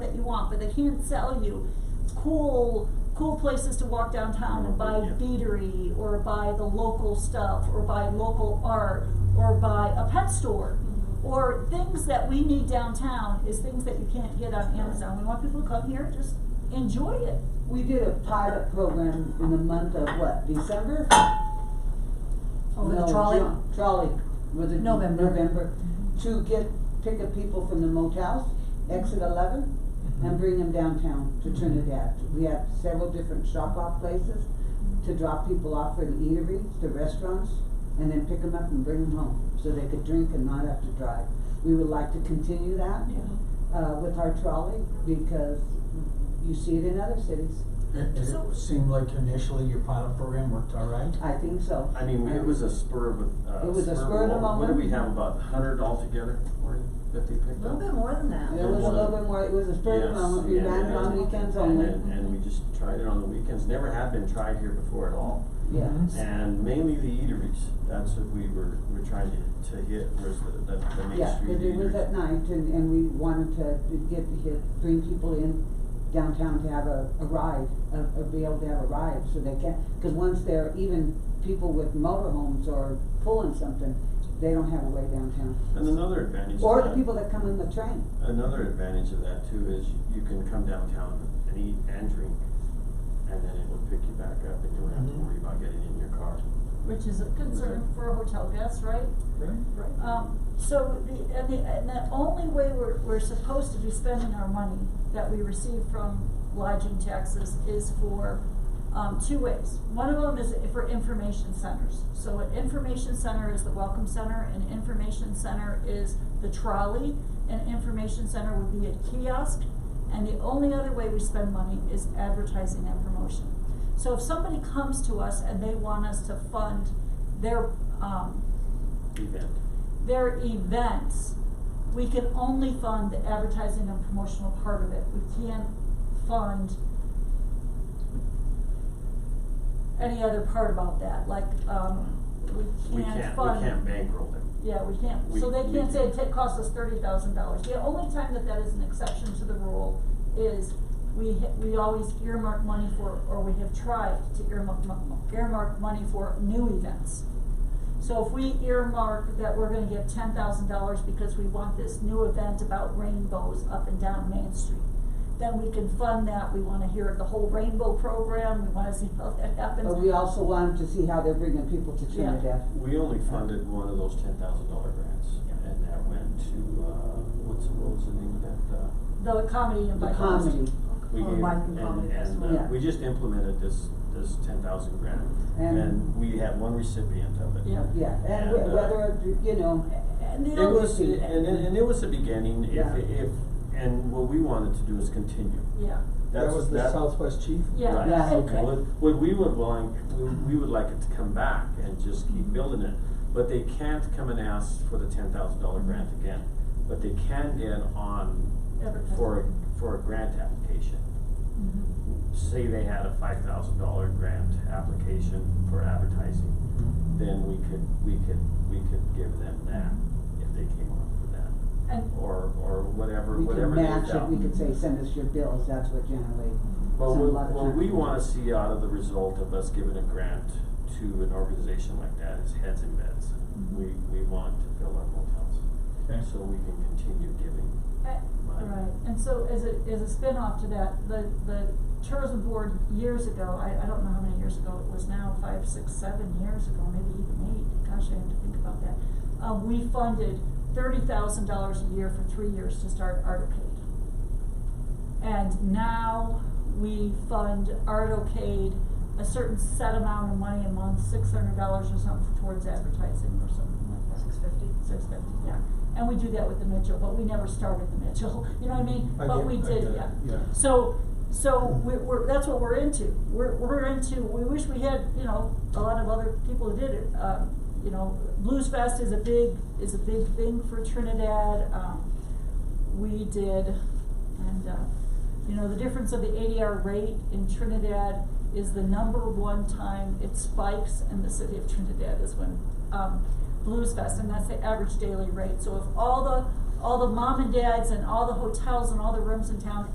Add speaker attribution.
Speaker 1: want, but they can't sell you cool, cool places to walk downtown and buy
Speaker 2: Yeah.
Speaker 1: beatery, or buy the local stuff, or buy local art, or buy a pet store. Or things that we need downtown is things that you can't get on Amazon. We want people to come here, just enjoy it.
Speaker 3: We did a pilot program in the month of what, December?
Speaker 1: Oh,
Speaker 4: Over
Speaker 3: No,
Speaker 4: Oh, the trolley,
Speaker 3: Ju- Trolley, was it
Speaker 4: November. Mm-hmm.
Speaker 3: November, to get, pick up people from the motels, exit eleven, and bring them downtown
Speaker 4: Mm-hmm.
Speaker 3: to Trinidad. We have several different shop-off places to drop people off for the eateries, the restaurants, and then pick them up and bring them home, so they could drink and not have to drive. We would like to continue that, uh, with our trolley, because you see it in other cities.
Speaker 5: Did did
Speaker 1: So-
Speaker 5: it seem like initially your pilot program worked all right?
Speaker 3: I think so. Um,
Speaker 2: I mean, it was a spur of, a- uh,
Speaker 3: It was a
Speaker 2: of
Speaker 3: spur of the
Speaker 2: moment. What
Speaker 3: moment.
Speaker 2: did we have, about a hundred altogether, Maureen, that they
Speaker 4: a
Speaker 2: picked up?
Speaker 4: little bit more than that.
Speaker 3: It was a little bit more, it was a spur of the
Speaker 2: Yes,
Speaker 3: moment, we
Speaker 2: yeah,
Speaker 3: ran it on
Speaker 2: yeah.
Speaker 3: weekends
Speaker 2: And-
Speaker 3: only,
Speaker 2: And, and we just tried it on the weekends, never had been tried here before at all.
Speaker 3: yeah.
Speaker 2: mm-hmm.
Speaker 5: Mhm.
Speaker 2: And mainly the eateries, that's what we were, were trying to, to hit, was the, the, the main
Speaker 3: Yeah,
Speaker 2: street
Speaker 3: but it was at
Speaker 2: eateries.
Speaker 3: night and, and we wanted to get, get, bring people in downtown to have a, a ride, a, a, be able to have a ride, so they can, cause once they're, even people with motorhomes or pulling something, they don't have a way downtown.
Speaker 2: And another advantage of
Speaker 3: Or the
Speaker 2: that-
Speaker 3: people that come in the train,
Speaker 2: Another advantage of that too is you- you can come downtown and eat and drink, and then it will pick you back up and you don't have to
Speaker 3: Mm-hmm.
Speaker 5: Mhm.
Speaker 2: worry about getting in your car.
Speaker 1: Which is a concern for hotel guests, right?
Speaker 5: Right.
Speaker 1: Um, so the, and the, and the only way we're, we're supposed to be spending our money that we receive from lodging taxes is for, um, two ways. One of them is for information centers. So an information center is the welcome center, an information center is the trolley, an information center would be a kiosk. And the only other way we spend money is advertising and promotion. So if somebody comes to us and they want us to fund their, um,
Speaker 2: Event.
Speaker 1: their events, we can only fund the advertising and promotional part of it. We can't fund any other part about that, like, um,
Speaker 2: We
Speaker 1: we can't
Speaker 2: can't, we
Speaker 1: fund.
Speaker 2: can't bankroll them.
Speaker 1: Yeah, we can't,
Speaker 2: We-
Speaker 1: so they
Speaker 2: we
Speaker 1: can't say
Speaker 2: can't.
Speaker 1: it ta- costs us thirty thousand dollars. The only time that that is an exception to the rule is we, ha- we always earmark money for, or we have tried to earmark, mo- earmark money for new events. So if we earmark that we're gonna give ten thousand dollars because we want this new event about rainbows up and down Main Street, then we can fund that. We wanna hear the whole rainbow program, we wanna see how that happens.
Speaker 3: but we also wanted to see how they're bringing people to
Speaker 1: Yeah.
Speaker 3: Trinidad.
Speaker 2: We only funded one of those ten thousand dollar grants,
Speaker 1: Yeah.
Speaker 2: and that went to, uh, what's, what was the name of that, uh?
Speaker 1: The comedy and
Speaker 3: The
Speaker 1: by
Speaker 3: comedy,
Speaker 2: we
Speaker 4: Or
Speaker 2: gave-
Speaker 4: Mike and Comedy
Speaker 2: and, and,
Speaker 4: Festival.
Speaker 2: uh,
Speaker 3: Yeah.
Speaker 2: we just implemented this, this ten thousand grant,
Speaker 3: And-
Speaker 2: and we had one recipient of it.
Speaker 1: Yeah.
Speaker 3: yeah, and
Speaker 2: And,
Speaker 3: whe-
Speaker 2: uh,
Speaker 3: whether, it- you know,
Speaker 1: And the
Speaker 2: It
Speaker 1: only-
Speaker 2: was, and, and and it was a beginning, if,
Speaker 3: Yeah.
Speaker 2: if, and what we wanted to do is continue.
Speaker 1: Yeah.
Speaker 2: That's-
Speaker 5: That was the
Speaker 2: that-
Speaker 5: Southwest Chief?
Speaker 1: Yeah.
Speaker 2: Right.
Speaker 3: Yeah.
Speaker 1: Okay.
Speaker 2: What, what we would like, we, we would like it to come back and just keep building it, but they can't come and ask for the ten thousand dollar grant again. But they can get on
Speaker 1: Advertising.
Speaker 2: for, a- for a grant application.
Speaker 1: Mhm.
Speaker 2: Say they had a five thousand dollar grant application for advertising, then we could, we could, we could give them that if they came on for that.
Speaker 1: And,
Speaker 2: or, or whatever,
Speaker 3: we could
Speaker 2: whatever they
Speaker 3: match it,
Speaker 2: felt.
Speaker 3: we could say, send us your bills, that's what generally,
Speaker 2: Well,
Speaker 3: some- a
Speaker 2: what,
Speaker 3: lot of
Speaker 2: what we
Speaker 3: times.
Speaker 2: wanna see out of the result of us giving a grant to an organization like that is heads and beds.
Speaker 3: Mm-hmm.
Speaker 2: We, we want to fill our motels,
Speaker 5: Okay.
Speaker 2: so we can continue giving.
Speaker 1: eh,
Speaker 2: Right.
Speaker 1: right, and so as a, as a spin-off to that, the, the tourism board years ago, I, I don't know how many years ago it was now, five, six, seven years ago, maybe even eight, gosh, I have to think about that. Um, we funded thirty thousand dollars a year for three years to start Artocade. And now we fund Artocade a certain set amount of money a month, six hundred dollars or something towards advertising or something like that.
Speaker 4: Six fifty.
Speaker 1: six fifty, yeah. And we do that with the Mitchell, but we never started the Mitchell, you know what I mean?
Speaker 5: I
Speaker 1: But
Speaker 5: get-
Speaker 1: we
Speaker 5: I
Speaker 1: did,
Speaker 5: get it,
Speaker 1: yeah.
Speaker 5: yeah.
Speaker 1: So, so we're, we're, that's what we're into. We're, we're into, we wish we had, you know, a lot of other people who did it. Um, you know, Blues Fest is a big, is a big thing for Trinidad. Um, we did, and, uh, you know, the difference of the ADR rate in Trinidad is the number one time it spikes in the city of Trinidad is when, um, Blues Fest, and that's the average daily rate. So if all the, all the mom and dads and all the hotels and all the rooms in town